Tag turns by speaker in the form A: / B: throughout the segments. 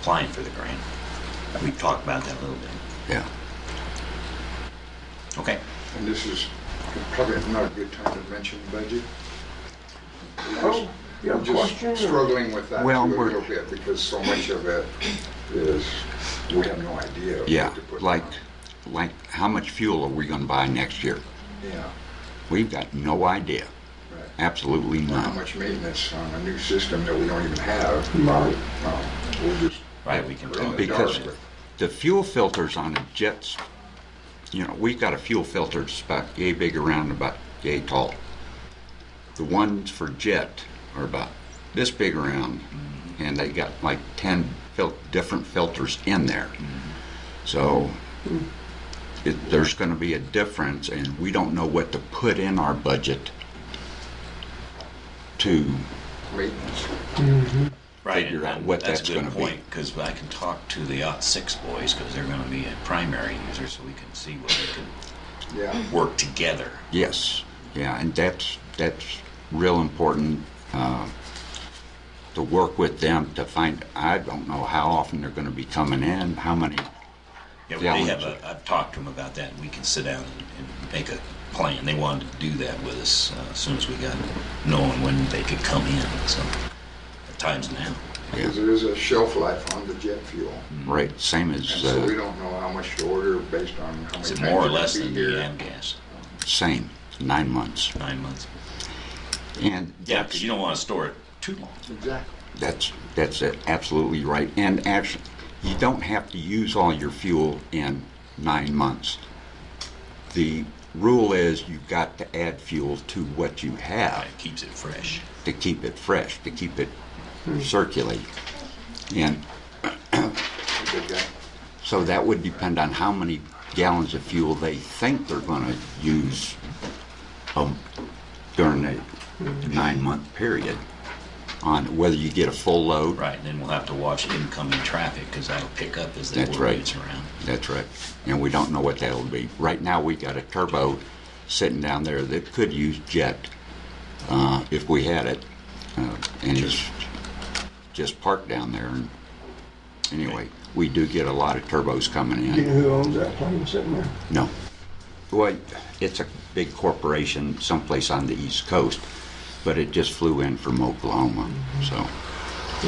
A: applying for the grant. We talked about that a little bit.
B: Yeah.
A: Okay.
C: And this is probably not a good time to mention the budget. Oh,
D: yeah, of course.
C: Just struggling with that too
B: Well,
C: a
B: we're-
C: little bit because so much of it is, we have no idea. what
B: Yeah,
C: to put
B: like,
C: down.
B: like, how much fuel are we gonna buy next year?
C: Yeah,
B: We've got no idea,
C: right.
B: absolutely
C: How
B: none.
C: much maintenance on a new system that we don't even have.
D: Right.
C: Um, We'll just.
A: Right, we can
C: we're in
A: tell.
C: the
B: Because
C: dark with-
B: the fuel filters on a jet's, you know, we've got a fuel filter that's about yay big around and about yay tall. The ones for jet are about this big around, and they got like ten fil- different filters in there. So it, there's gonna be a difference, and we don't know what to put in our budget to
C: Maintenance.
A: Right,
B: figure
A: and-
B: out
A: and
B: what
A: that's
B: that's
A: a
B: gonna
A: good
B: be.
A: point, because I can talk to the OT six boys, because they're gonna be a primary user, so we can see what we can
C: Yeah,
A: work together.
B: Yes, yeah, and that's, that's real important, uh, to work with them to find, I don't know how often they're gonna be coming in, how many,
A: Yeah,
B: Yeah,
A: they
B: we-
A: have a, I've talked to them about that, and we can sit down and- and make a plan. They wanted to do that with us uh, as soon as we got knowing when they could come in, so, at times now.
C: because there is a shelf life on the jet fuel.
A: Mm-hmm.
B: right, same
C: And
B: as,
C: so we
B: uh,
C: don't know how much to order based on how many
A: Is
C: times
A: it more or
C: it'll
A: less
C: be
A: than
C: here.
A: the AMGAS?
B: same, nine months.
A: Nine months?
B: And
A: Yeah, because you don't want to store it too long.
C: Exactly.
B: that's, that's it, absolutely right. And actually, you don't have to use all your fuel in nine months. The rule is you've got to add fuel to what you have.
A: It keeps it fresh.
B: to keep it fresh, to keep it circulating. And
C: Okay, got it.
B: so that would depend on how many gallons of fuel they think they're going to use um, during a nine-month period on whether you get a full load.
A: Right, and then we'll have to watch incoming traffic, because that'll pick up as the
B: That's
A: board
B: right.
A: gets around.
B: That's right. And we don't know what that'll be. Right now, we got a turbo sitting down there that could use jet uh, if we had it. Uh, and it's just parked down there. And anyway, we do get a lot of turbos coming
D: Do you
B: in.
D: know who owns that plane sitting there?
B: No. Well, it's a big corporation someplace on the East Coast, but it just flew in from Oklahoma. So,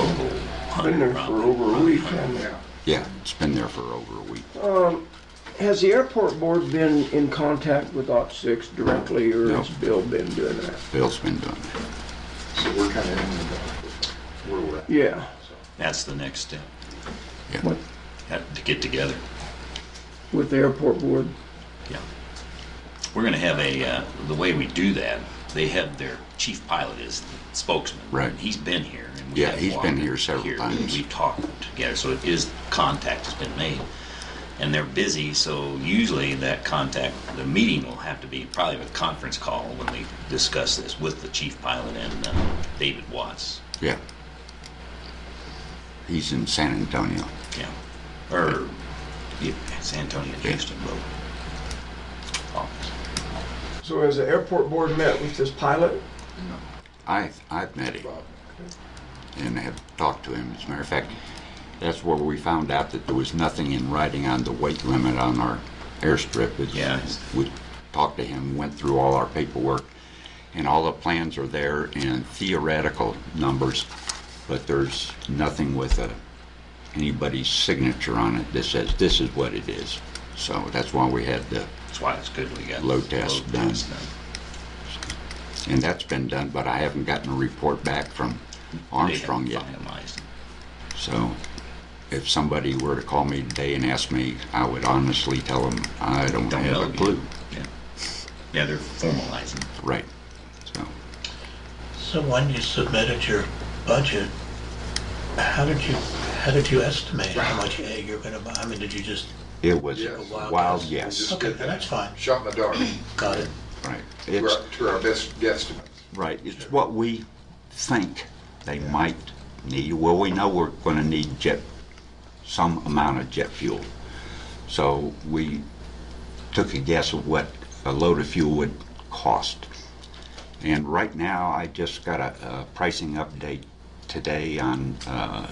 A: Local
D: Been
A: hunter
D: there for
A: problem.
D: over a week, uh, haven't
C: Yeah.
B: yeah, it's been there for over a week.
D: they? Has the airport board been in contact with OT six directly, or
B: No.
D: has Bill been doing that?
B: Bill's been doing it.
C: So we're kind of in the dark with where we're at.
D: Yeah.
A: That's the next step,
B: Yeah.
D: What,
A: have to get together.
D: with the airport board?
A: Yeah. We're going to have a, uh, the way we do that, they have their chief pilot is the spokesman.
B: Right.
A: He's been here. and we
B: Yeah,
A: have
B: he's been
A: walked
B: here several
A: and
B: times.
A: We've talked together, so it is, contact has been made. And they're busy, so usually that contact, the meeting will have to be probably a conference call when they discuss this with the chief pilot and uh, David Watts.
B: Yeah. He's in San Antonio.
A: Yeah. Or, yeah, San Antonio, Houston, both. Office.
D: So has the airport board met with this pilot?
B: I, I've met him
C: Bob.
B: and have talked to him. As a matter of fact, that's where we found out that there was nothing in writing on the weight limit on our airstrip. It's-
A: Yeah.
B: We talked to him, went through all our paperwork, and all the plans are there and theoretical numbers, but there's nothing with a, anybody's signature on it that says this is what it is. So that's why we had the
A: That's why it's good we got.
B: Load test
A: load
B: done.
A: test
B: And that's been done, but I haven't gotten a report back from Armstrong
A: They
B: yet.
A: haven't finalized.
B: So if somebody were to call me today and ask me, I would honestly tell them, I don't
A: Don't know
B: have a
A: yet.
B: clue.
A: Yeah. Yeah, they're formalizing.
B: Right. So
E: So when you submitted your budget, how did you, how did you estimate how much egg you're gonna buy? I mean, did you just,
B: it was
C: Yes.
B: a
E: Wild
B: wild
E: guess.
B: yes.
C: Just
E: okay,
C: did that.
E: that's fine,
C: Shot in the dark.
E: got it.
B: Right.
C: We're
B: It's,
C: up to our best guesstimate.
B: right. It's what we think they might need. Well, we know we're going to need jet, some amount of jet fuel. So we took a guess of what a load of fuel would cost. And right now, I just got a, a pricing update today on uh,